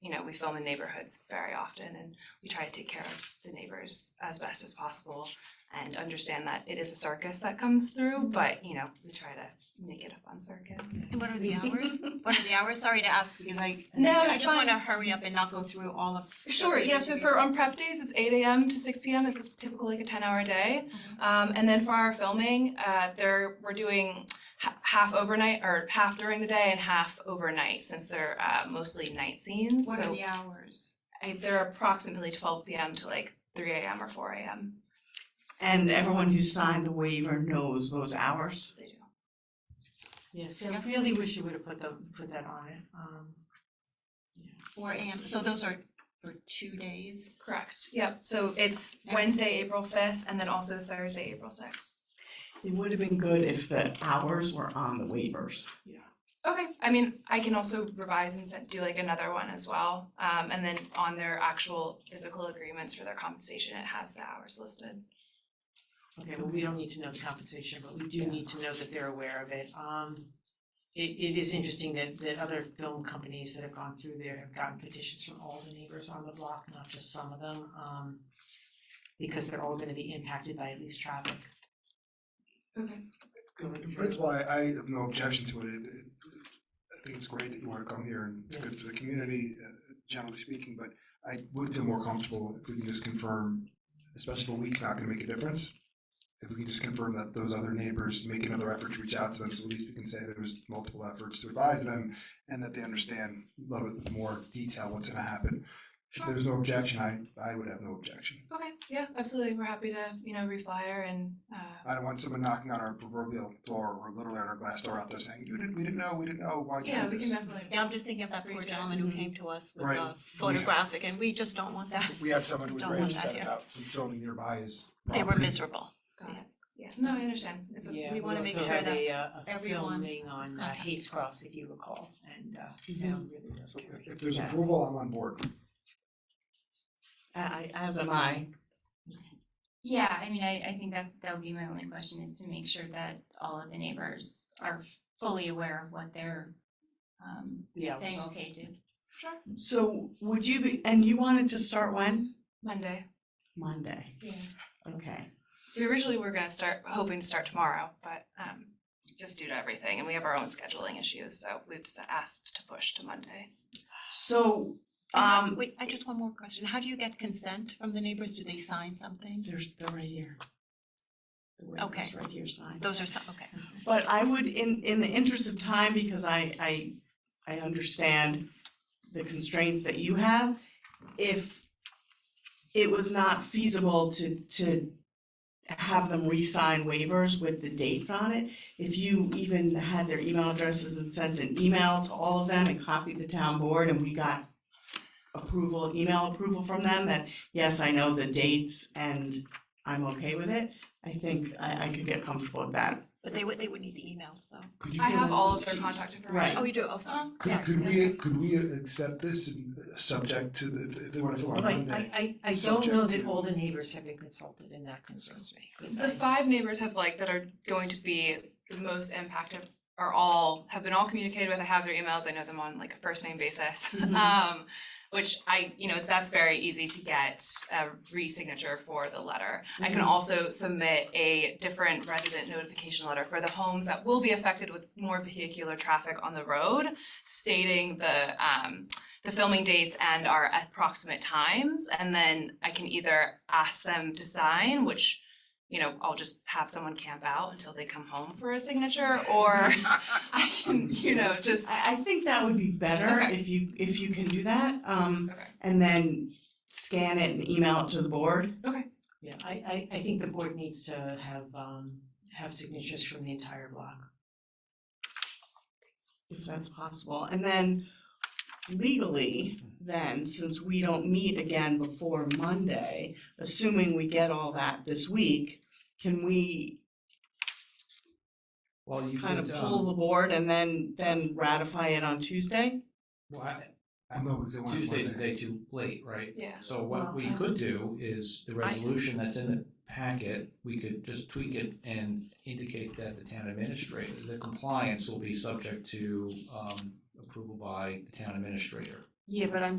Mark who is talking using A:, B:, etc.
A: you know, we film in neighborhoods very often and we try to take care of the neighbors as best as possible and understand that it is a circus that comes through,
B: Mm-hmm.
A: but you know, we try to make it up on circus.
B: And what are the hours? What are the hours? Sorry to ask because I
A: No,
B: I
A: it's
B: just
A: fine.
B: wanna hurry up and not go through all of the
A: Sure, yeah, so for on
B: interviews.
A: prep days, it's eight AM to six PM, it's typical like a ten hour day.
B: Mm-hmm.
A: Um, and then for our filming, uh, there, we're doing ha- half overnight, or half during the day and half overnight, since they're, uh, mostly night scenes,
B: What are
A: so
B: the hours?
A: I, they're approximately twelve PM to like three AM or four AM.
C: And everyone who signed the waiver knows those hours.
A: They do.
D: Yes, I really wish you would have put the, put that on it, um.
B: Four AM, so those are for two days?
A: Correct, yep, so it's
B: Yeah.
A: Wednesday, April fifth, and then also Thursday, April sixth.
C: It would have been good if the hours were on the waivers.
A: Okay, I mean, I can also revise and send- do like another one as well, um, and then on their actual physical agreements for their compensation, it has the hours listed.
D: Okay, well, we don't need to know the compensation, but we do need to know that they're aware of it. Um, it, it is interesting that, that other film companies that have gone through there have gotten petitions from all the neighbors on the block, not just some of them, um, because they're all gonna be impacted by at least traffic. going
E: In
D: through.
E: principle, I, I have no objection to it. It- it- I think it's great that you want to come here and it's good for the community, uh, generally speaking, but I would feel more comfortable if we can just confirm, especially if a week's not going to make a difference. If we can just confirm that those other neighbors make another effort to reach out to them, so at least we can say there was multiple efforts to advise them and that they understand a little bit more detail what's going to happen. If
A: Sure.
E: there's no objection, I, I would have no objection.
A: Okay, yeah, absolutely, we're happy to, you know, reflyer and, uh,
E: I don't want someone knocking on our proverbial door or literally on our glass door out there saying, you didn't, we didn't know, we didn't know, why
A: yeah,
E: can't
A: we
E: you
A: can
E: do this?
A: definitely.
B: Yeah, I'm just thinking of that poor gentleman who came to us with
E: Right.
B: a photographic and we just don't want that.
E: We had someone who was
B: Don't
E: very
B: want that
E: upset
B: here.
E: about some filming nearby is.
B: They were miserable.
A: Got it. Yeah, no, I understand, it's, a-
D: Yeah,
B: we
D: we
B: wanna make
D: also
B: sure
D: had
B: that
D: a, uh, a
B: everyone
D: filming on uh,
B: contact.
D: Hates Cross, if you recall, and, uh,
B: Mm-hmm.
D: sound really does
E: So
D: carry.
E: if- If there's
C: Yes.
E: approval, I'm on board.
C: I, I- as am I.
F: Yeah, I mean, I, I think that's, that would be my only question is to make sure that all of the neighbors are fully aware of what they're um
D: The hours.
F: saying okay to.
A: sure,
C: So would you be, and you wanted to start when?
A: Monday,
C: Monday,
A: yeah.
C: okay.
A: We originally were gonna start, hoping to start tomorrow, but, um, just due to everything, and we have our own scheduling issues, so we've s- asked to push to Monday.
C: So,
B: And how-
C: um,
B: Wait, I just one more question. How do you get consent from the neighbors? Do they sign something?
C: there's, they're right here. The
B: Okay.
C: waiver's right here signed.
B: Those are, si- okay.
C: But I would, in, in the interest of time, because I, I, I understand the constraints that you have, if it was not feasible to, to have them re-sign waivers with the dates on it, if you even had their email addresses and sent an email to all of them and copied the town board and we got approval, email approval from them, that, yes, I know the dates and I'm okay with it, I think I, I could get comfortable with that.
B: But they would, they would need the emails though.
E: Could you
A: I
E: give
A: have
E: us
A: all
E: a
A: of their
E: sheet?
A: contact information.
C: Right.
B: Oh, you do? Oh, sorry.
A: Um, yeah,
E: Could, could
A: that's
E: we,
A: fine.
E: could we accept this and, uh, subject to the, if they want to fill out
D: Right,
E: Monday?
D: I, I, I don't know
E: subject
D: that
E: to-
D: all the neighbors have been consulted, and that concerns me. 'cause
A: The
D: I-
A: five neighbors have like, that are going to be the most impacted are all, have been all communicated with, I have their emails, I know them on like a first name basis.
E: Mm-hmm.
C: Mhm.
A: Um, which I, you know, it's, that's very easy to get a re-signature for the letter. I can
C: Mhm.
A: also submit a different resident notification letter for the homes that will be affected with more vehicular traffic on the road, stating the, um, the filming dates and our approximate times, and then I can either ask them to sign, which, you know, I'll just have someone camp out until they come home for a signature, or I can, you know, just,
C: I, I think that would be better
A: Okay.
C: if you, if you can do that, um,
A: okay,
C: and then scan it and email it to the board.
D: Yeah, I, I, I think the board needs to have, um, have signatures from the entire block.
C: If that's possible, and then legally, then, since we don't meet again before Monday, assuming we get all that this week, can we
G: Well, you
C: kind of
G: could,
C: pull
G: um,
C: the board and then, then ratify it on Tuesday?
G: well, I-
E: I know, because they want Monday.
G: Tuesday's a day too late, right?
A: yeah.
G: So
D: Well,
G: what we
D: I-
G: could do is the resolution that's in the packet, we could just tweak it and indicate that the town administrator, the compliance will be subject to, um, approval by the town administrator.
D: Yeah, but I'm